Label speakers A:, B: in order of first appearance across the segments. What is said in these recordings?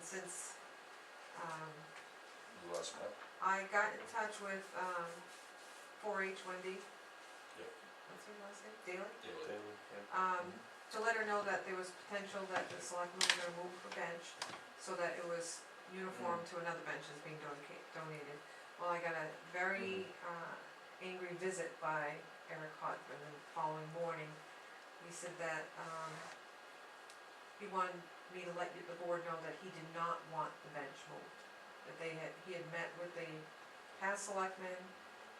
A: since, um,
B: You last met?
A: I got in touch with, um, four H Wendy.
B: Yep.
A: What's her last name, Daly?
B: Daily.
A: Um, to let her know that there was potential that the selectmen were gonna move the bench, so that it was uniform to another bench that's being donca- donated. Well, I got a very, uh, angry visit by Eric Hotman the following morning. He said that, um, he wanted me to let you- the board know that he did not want the bench moved. That they had, he had met with the past selectmen,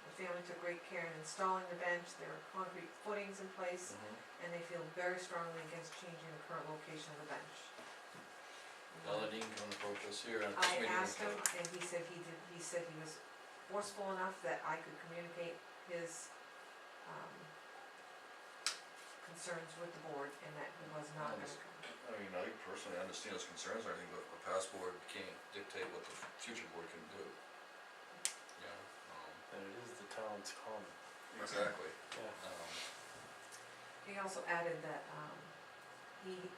A: the family took great care in installing the bench, there are concrete footings in place,
C: Mm-hmm.
B: Mhm.
A: and they feel very strongly against changing the current location of the bench.
B: Now that he can come approach us here on this
A: I
B: meeting.
A: asked him, and he said he did, he said he was forceful enough that I could communicate his, um, concerns with the board, and that he was not gonna
B: Nice.
A: come.
B: I mean, I personally understand his concerns or anything, but the past board can't dictate what the future board can do. You know, um,
C: And it is the town's common.
B: exactly,
C: Yeah.
B: um,
A: He also added that, um, he,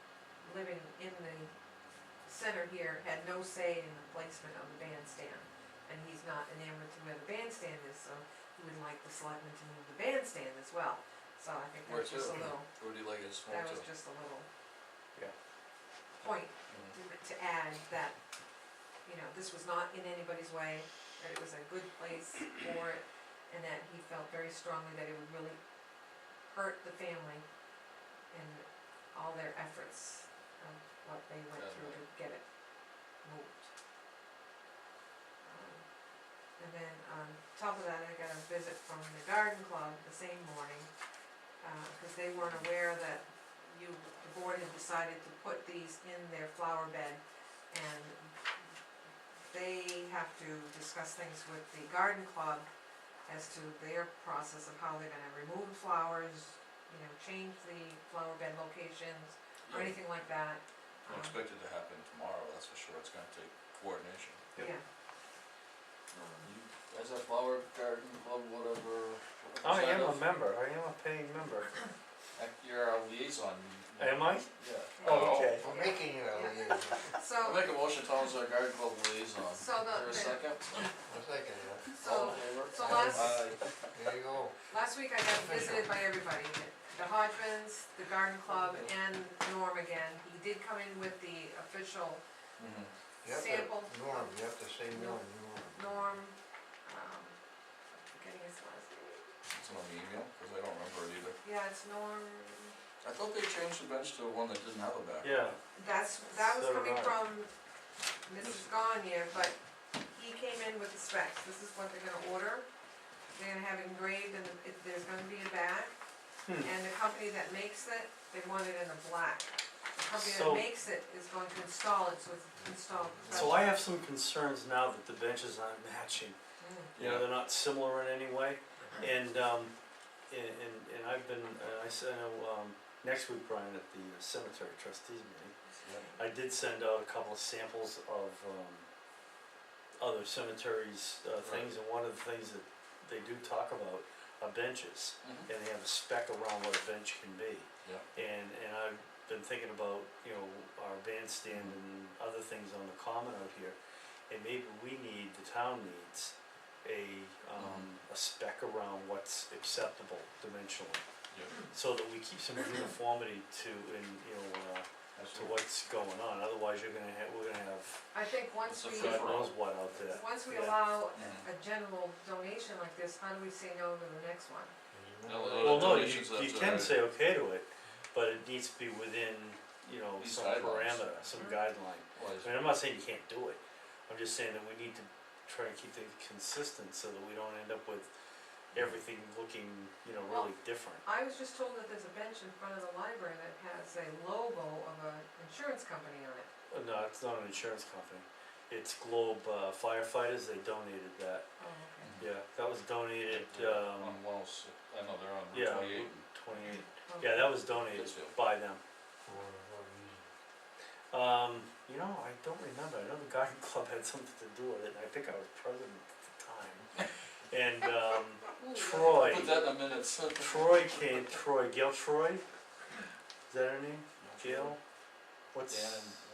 A: living in the center here, had no say in the placement of the bandstand. And he's not enamored to where the bandstand is, so he would like the selectmen to move the bandstand as well. So I think
B: Where
A: that's just a
B: to?
A: little,
B: who do you like us more
A: that
B: to?
A: was just a little
C: Yeah.
A: point
B: Mhm.
A: to, to add that, you know, this was not in anybody's way, that it was a good place for it, and that he felt very strongly that it would really hurt the family and all their efforts of what they went through to get it moved. Um, And then on top of that, I got a visit from the garden club the same morning, uh, cause they weren't aware that you, the board had decided to put these in their flower bed and they have to discuss things with the garden club as to their process of how they're gonna remove flowers, you know, change the flower bed locations or
B: Yeah,
A: anything like that.
B: Don't
A: Um,
B: expect it to happen tomorrow, that's for sure, it's gonna take coordination.
C: Yep.
A: Yeah. Um,
B: You, as a flower garden club, whatever. what
C: I
B: side
C: am a
B: of-
C: member, I am a paying member.
B: act- You're our liaison. you-
C: Am I?
B: Yeah.
C: Oh, okay.
D: For making you a liaison,
B: I'll
A: So,
B: make a motion, Tom's our garden club liaison.
A: So the-
B: Is there a second?
D: I'm thinking, yeah,
A: so
B: All Uh, in favor?
A: so last-
B: Aye.
D: there you go.
A: last week I got visited by everybody, the Hodgmans, the garden club and Norm again. He did come in with the official
B: Mhm.
D: You have to-
A: sample
D: Norm, you have to say Norm, Norm.
A: Norm, um, forgetting his last name.
B: It's on the email, cause I don't remember it either.
A: Yeah, it's Norm,
B: I thought they changed the bench to one that didn't have a back.
C: Yeah,
A: that's, that was
C: So
A: coming
C: right.
A: from Mrs. Gagne, but he came in with the specs, this is what they're gonna order. They're gonna have engraved and it- there's gonna be a back,
C: Hmm.
A: and the company that makes it, they want it in a black. The company
C: So-
A: that makes it is going to install it, so it's installed.
C: so I have some concerns now that the benches aren't matching.
A: Mm.
C: You know, they're not similar in any way. And, um, and, and, and I've been, uh, I said, um, next week, Brian, at the uh, cemetery trustees meeting, I did send out a couple of samples of, um, other cemeteries, uh, things, and one of the things that they do talk about are benches.
B: Mhm.
C: and they have a spec around what a bench can be.
B: Yeah.
C: And, and I've been thinking about, you know, our bandstand and other things on the common out here, and maybe we need, the town needs, a, um, a spec around what's acceptable dimensionally,
B: Yeah,
C: so that we keep some uniformity to, in, you know, uh, to
B: absolutely.
C: what's going on, otherwise you're gonna have, we're gonna have
A: I think once
B: It's a
A: we.
C: God knows what out there.
A: Once we
C: Yeah.
A: allow
B: Mhm.
A: a general donation like this, how do we say no to the next one?
B: No,
C: Well, no, you,
B: Uh, donations,
C: you
B: that's
C: can
B: alright.
C: say okay to it, but it needs to be within, you know,
B: These
C: some
B: guidelines.
C: parameter, some
A: Mhm.
C: guideline.
B: Well, it's-
C: I mean, I'm not saying you can't do it, I'm just saying that we need to try and keep things consistent so that we don't end up with everything looking, you know, really different.
A: I was just told that there's a bench in front of the library that has a logo of an insurance company on it.
C: Uh, No, it's not an insurance company, it's Globe uh, firefighters, they donated that,
A: Oh, okay.
B: Mhm.
C: yeah, that was donated,
B: They're
C: um,
B: On one oh six, I know, they're on
C: yeah,
B: Route twenty-eight. and
C: twenty-eight, yeah, that was donated
B: Pittsfield.
C: by them.
D: For what reason?
C: Um, you know, I don't remember. I know the garden club had something to do with it, and I think I was president at the time. And um,
A: Ooh,
C: Troy,
B: Put that in a minute.
C: Troy came. Troy, Gail Troy. Is that her name? Gail. What's
B: Dan and